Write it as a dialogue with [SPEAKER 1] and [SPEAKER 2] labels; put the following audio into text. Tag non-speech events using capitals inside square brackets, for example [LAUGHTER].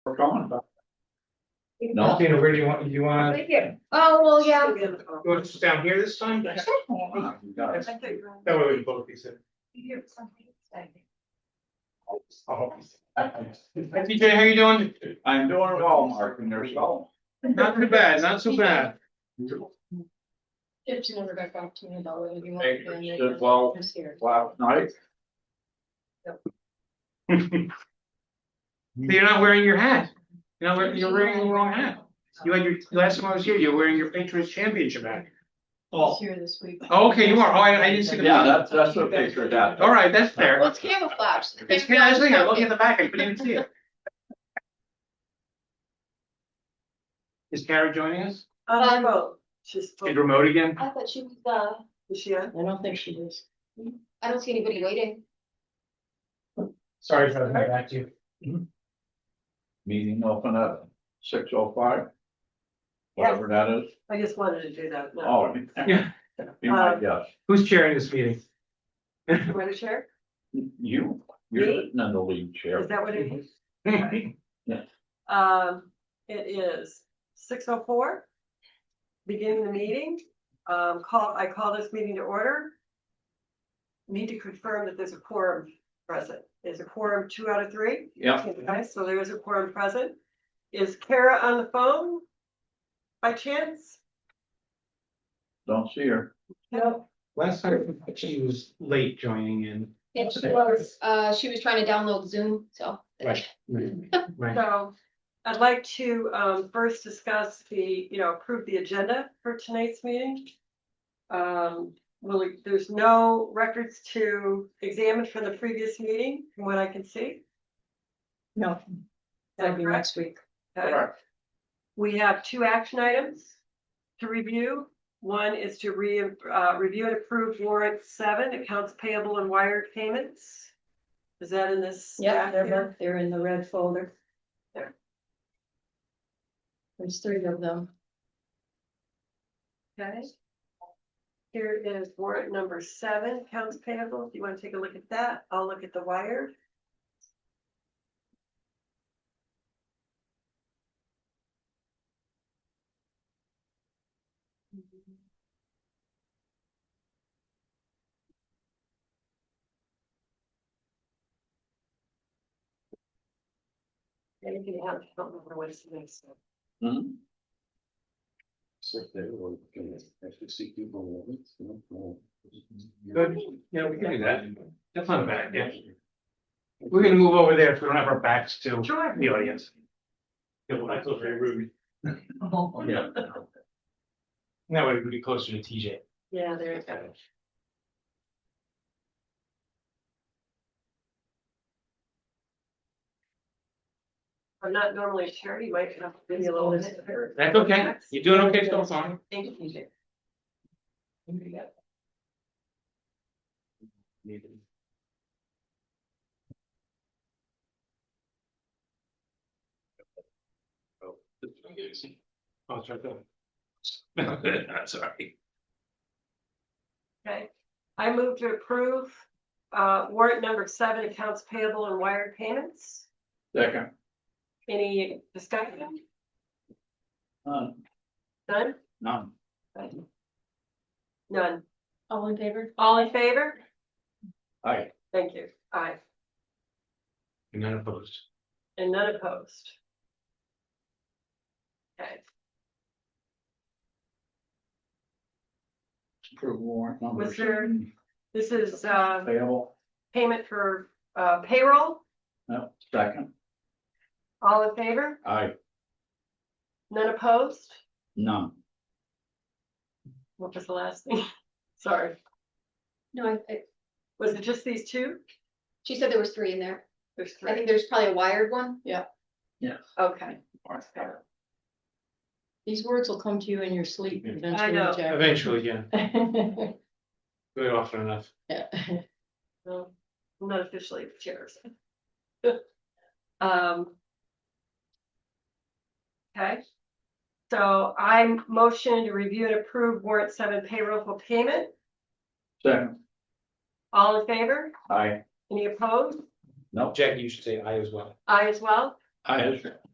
[SPEAKER 1] we're going, but
[SPEAKER 2] No.
[SPEAKER 3] Tina, where do you want, you want,
[SPEAKER 4] Right here.
[SPEAKER 5] Oh, well, yeah,
[SPEAKER 3] you want us down here this time? That
[SPEAKER 1] you got it.
[SPEAKER 3] way we can both be sitting. Oh. Hi, TJ, how you doing?
[SPEAKER 1] I'm doing well, Mark, and there's all.
[SPEAKER 3] Not too bad, not so bad.
[SPEAKER 6] Tips never got back to me about whether you want.
[SPEAKER 1] Hey,
[SPEAKER 6] to do
[SPEAKER 1] did
[SPEAKER 6] it.
[SPEAKER 1] well
[SPEAKER 6] Just here.
[SPEAKER 1] last night.
[SPEAKER 3] So You're not wearing your hat. You're not wearing, you're wearing the wrong hat. You had your, last time I was here, you were wearing your Patriots championship hat.
[SPEAKER 6] Just
[SPEAKER 3] Oh.
[SPEAKER 6] here this week.
[SPEAKER 3] Okay, you are. Oh, I- I didn't see the-
[SPEAKER 1] Yeah, that's, that's what they figured out.
[SPEAKER 3] All right, that's fair.
[SPEAKER 5] well, it's camouflage.
[SPEAKER 3] It's kind of interesting. I'm looking at the back. I couldn't even see it. Is Kara joining us?
[SPEAKER 5] Um,
[SPEAKER 4] vote. She's.
[SPEAKER 3] Is remote again?
[SPEAKER 5] I thought she was, uh,
[SPEAKER 4] Yeah.
[SPEAKER 6] I don't think she is.
[SPEAKER 5] I don't see anybody waiting.
[SPEAKER 3] Sorry for the back to you.
[SPEAKER 1] Meeting open at six oh five. Whatever that is.
[SPEAKER 4] I just wanted to do that. no.
[SPEAKER 1] Oh. [LAUGHS]
[SPEAKER 3] Yeah.
[SPEAKER 1] Be
[SPEAKER 6] Uh,
[SPEAKER 1] my guest.
[SPEAKER 3] Who's chairing this [LAUGHS] meeting?
[SPEAKER 4] You want to share?
[SPEAKER 1] You, you're sitting in the lead chair.
[SPEAKER 4] Is that what it is?
[SPEAKER 3] All
[SPEAKER 4] Um, it is six oh four. Beginning the meeting, um, call, I call this meeting to order. Need to confirm that there's a quorum present. There's a quorum two out of three.
[SPEAKER 1] Yep.
[SPEAKER 4] Okay, so there is a quorum present. Is Kara on the phone? By chance?
[SPEAKER 1] Don't see her.
[SPEAKER 4] No.
[SPEAKER 3] Last time she was late joining in.
[SPEAKER 5] And she was, uh, she was trying to download Zoom, so.
[SPEAKER 3] Right. Right.
[SPEAKER 4] So I'd like to um first discuss the, you know, approve the agenda for tonight's meeting. Um, well, there's no records to examine from the previous meeting, from what I can see.
[SPEAKER 6] No. That'll be next week.
[SPEAKER 4] Okay. We have two action items to review. One is to re, uh, review and approve warrant seven, accounts payable and wired payments. Is that in this?
[SPEAKER 6] Yeah,
[SPEAKER 4] stack
[SPEAKER 6] they're
[SPEAKER 4] here?
[SPEAKER 6] both, they're in the red folder.
[SPEAKER 4] There.
[SPEAKER 6] There's three of them.
[SPEAKER 4] Okay. Here is warrant number seven, accounts payable. If you want to take a look at that, I'll look at the wire. Anything else? I don't remember what's next.
[SPEAKER 1] Mhm.
[SPEAKER 3] Good. Yeah, we can do that. That's not bad, yeah. We're gonna move over there if we don't have our backs to
[SPEAKER 4] Sure.
[SPEAKER 3] the audience.
[SPEAKER 1] Yeah.
[SPEAKER 3] That way we can be closer to TJ.
[SPEAKER 4] Yeah, there you go. I'm not normally a charity, might have to be a little bit.
[SPEAKER 3] That's okay. You're doing okay so far.
[SPEAKER 4] Thank you, TJ.
[SPEAKER 3] Oh, it's right there. I'm [LAUGHS] sorry.
[SPEAKER 4] Okay, I move to approve uh warrant number seven, accounts payable and wired payments.
[SPEAKER 1] [LAUGHS] Second.
[SPEAKER 4] Any discussion?
[SPEAKER 1] None.
[SPEAKER 4] None?
[SPEAKER 1] Uh, None.
[SPEAKER 4] None.
[SPEAKER 6] All in favor?
[SPEAKER 4] All in favor?
[SPEAKER 1] Aye.
[SPEAKER 4] Thank you. Aye.
[SPEAKER 3] You're not opposed.
[SPEAKER 4] And none opposed. Okay.
[SPEAKER 1] Approve warrant number.
[SPEAKER 4] Was there-
[SPEAKER 1] seven.
[SPEAKER 4] This is uh
[SPEAKER 1] Payable.
[SPEAKER 4] payment for uh payroll.
[SPEAKER 1] No, second.
[SPEAKER 4] All in favor?
[SPEAKER 1] Aye.
[SPEAKER 4] None opposed?
[SPEAKER 1] None.
[SPEAKER 4] What was the last thing? [LAUGHS] Sorry.
[SPEAKER 5] No, I, I-
[SPEAKER 4] Was it just these two?
[SPEAKER 5] she said there was three in there.
[SPEAKER 4] There's
[SPEAKER 5] I think
[SPEAKER 4] three.
[SPEAKER 5] there's probably a wired one.
[SPEAKER 1] Yes.
[SPEAKER 4] Okay.
[SPEAKER 6] These words will come to you in your sleep eventually,
[SPEAKER 4] know.
[SPEAKER 6] Jack.
[SPEAKER 3] Eventually, yeah,
[SPEAKER 6] [LAUGHS]
[SPEAKER 3] very often enough.
[SPEAKER 6] Yeah.
[SPEAKER 4] Well, I'm not officially the chair. so. [LAUGHS] Um. Okay. So I'm motion to review and approve warrant seven payroll for payment.
[SPEAKER 1] Second.
[SPEAKER 4] All in favor?
[SPEAKER 1] Aye.
[SPEAKER 4] Any opposed?
[SPEAKER 1] No.
[SPEAKER 3] Jackie, you should say I as well.
[SPEAKER 4] I as well.
[SPEAKER 1] Aye.